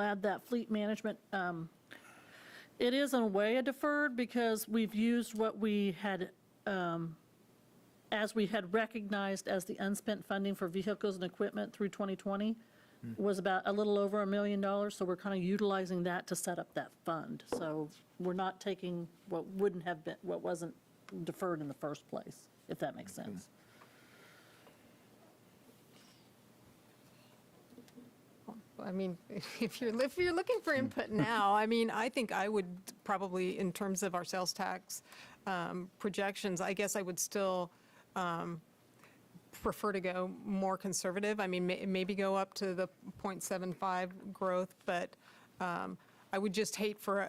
add that fleet management. um, It is in a way a deferred because we've used what we had, um, as we had recognized as the unspent funding for vehicles and equipment through 2020 was about a little over a million dollars, so we're kind of utilizing that to set up that fund. So we're not taking what wouldn't have been, what wasn't deferred in the first place, if that makes sense. I mean, if you're, if you're looking for input now, I mean, I think I would probably, in terms of our sales tax um, projections, I guess I would still um, prefer to go more conservative. I mean, may- maybe go up to the 0.75 growth, but um, I would just hate for, uh,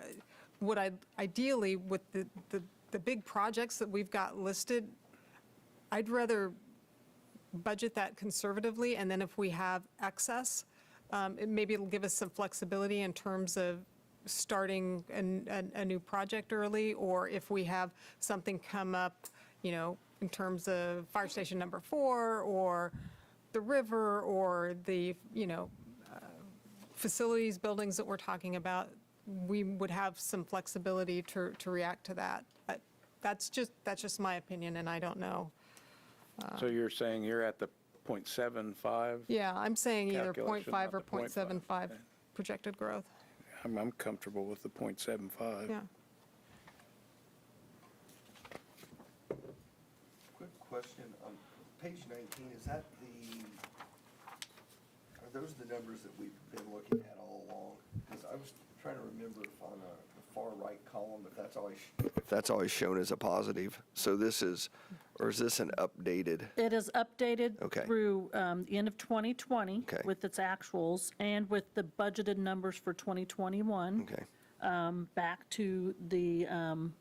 what I, ideally, with the, the, the big projects that we've got listed, I'd rather budget that conservatively, and then if we have excess, um, it- maybe it'll give us some flexibility in terms of starting an- an- a new project early, or if we have something come up, you know, in terms of fire station number four, or the river, or the, you know, uh, facilities, buildings that we're talking about, we would have some flexibility to to react to that. Uh, That's just, that's just my opinion, and I don't know. So you're saying you're at the 0.75? Yeah, I'm saying either Calculation, not 0.5 or the 0.75 0.5, yeah. projected growth. I'm, I'm comfortable with the 0.75. Yeah. Quick question, on page 19, is that the, are those the numbers that we've been looking at all along? Because I was trying to remember if on uh, the far right column, if that's always. If that's always shown as a positive, so this is, or is this an updated? It is updated Okay. through um, the end of 2020 Okay. with its actuals and with the budgeted numbers for 2021. Okay, um, Back to the, um,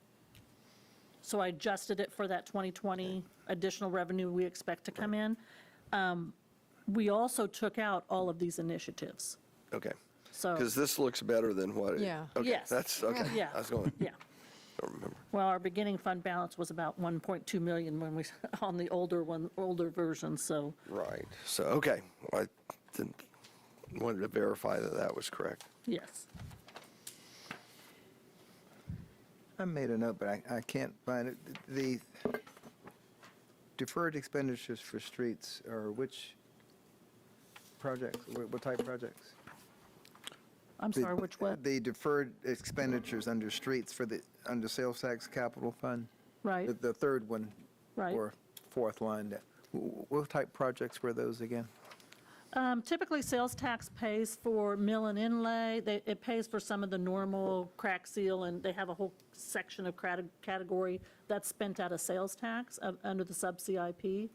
so I adjusted it for that 2020 additional revenue we expect to come in. Um, We also took out all of these initiatives. okay. So- Because this looks better than what. it- Yeah. okay, Yes. That's, okay. Yeah. I was going, Yeah. don't remember. Well, our beginning fund balance was about 1.2 million when we, on the older one, older version, so. Right, so, okay. I didn't, wanted to verify that that was correct. Yes. I made a note, but I, I can't find it. The deferred expenditures for streets are which projects, what what type projects? I'm The- sorry, which what? The deferred expenditures under streets for the, under sales tax capital fund? Right. The- The third one? Right. Or fourth line. that- wh- What type projects were those again? Um, Typically, sales tax pays for mill and inlay. They- It pays for some of the normal crack seal, and they have a whole section of crat- category that's spent out of sales tax uh, under the sub CIP.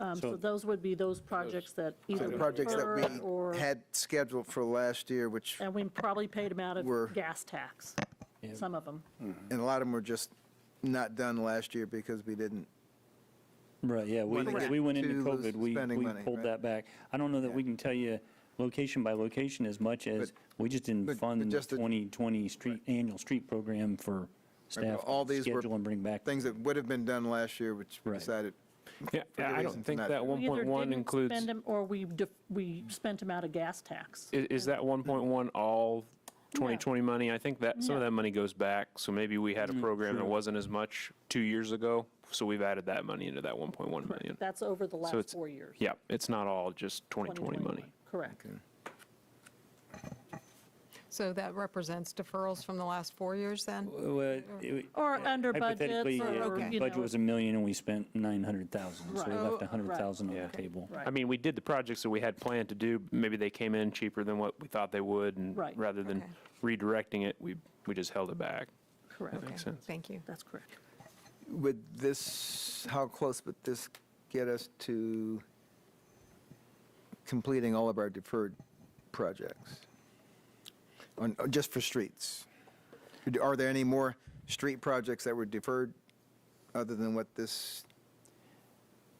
Um, So those would be those projects that So either The projects deferred that or, we had scheduled for last year, which, and we probably paid them out Were- of gas tax, some of them. and a lot of them were just not done last year because we didn't Right, yeah, we, When it we gets went to into those COVID, we, spending we money, pulled right? that back. I don't know that we Yeah. can tell you location by location as much as, we just but- didn't but fund the just the- 2020 street, annual street program for Right, but staff All to these were schedule and bring back. things that would have been done last year, which we Right. decided. Yeah, for I reasons don't think not that to- We either 1.1 didn't includes, spend i- 'em Or we, def- we spent them out of gas tax. is that 1.1 all 2020 money? I think that, some of No. that money goes back, so maybe we Mm, had a program that wasn't as much two years ago, so we've added that money into that 1.1 million. That's over the So last it's, four years. yeah, it's not all just 2020 money. 2021. Correct. So that represents deferrals from the last four years then? Well, it- Or under budget. Hypothetically, or, okay. yeah, you budget know, was a million and we spent 900,000, so we Right. left Oh, 100,000 on right. the table. Right. I mean, we did the projects that we had planned to do, maybe they came in cheaper than what we thought they would, and Right. rather than Okay. redirecting it, we, we just held it back. Correct. Okay, sense. Thank you. That's correct. Would this, how close would this get us to completing all of our deferred projects? On, on- just for streets? Are there any more street projects that were deferred other than what this,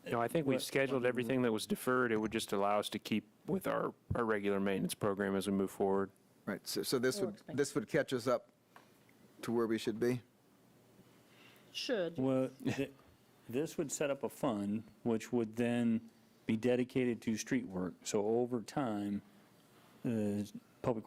No, I think we What- scheduled everything that was deferred, it would just allow us to keep with our, our regular maintenance program as we move forward. right, so, so this Or would, this would catch us up to where we should be? Should. Well, th- this would set up a fund, which would then be dedicated to street work. So over time, uh, Public